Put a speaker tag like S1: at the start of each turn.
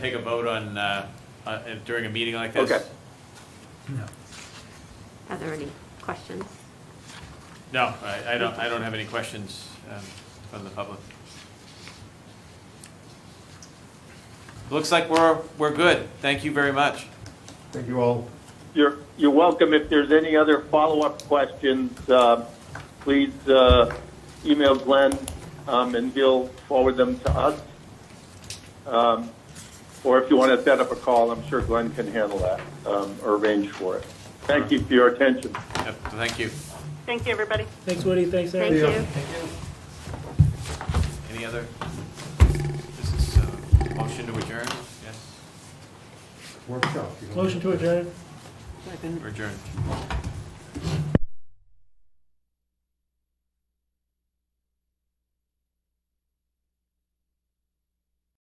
S1: take a vote on, uh, uh, during a meeting like this?
S2: Okay.
S3: Are there any questions?
S1: No, I, I don't, I don't have any questions um, from the public. Looks like we're, we're good. Thank you very much.
S4: Thank you all.
S5: You're, you're welcome. If there's any other follow-up questions, uh, please uh, email Glenn, um, and he'll forward them to us. Um, Or if you want to set up a call, I'm sure Glenn can handle that um, or arrange for it. Thank you for your attention.
S1: Yep, Thank you.
S6: Thank you, everybody.
S7: Thanks, Woody. Thanks, Eric.
S3: Thank
S4: Yeah.
S3: you.
S1: Any other? This is, uh, motion to adjourn? Yes,
S4: Workshop. you know.
S7: Motion to adjourn.
S1: we're adjourned.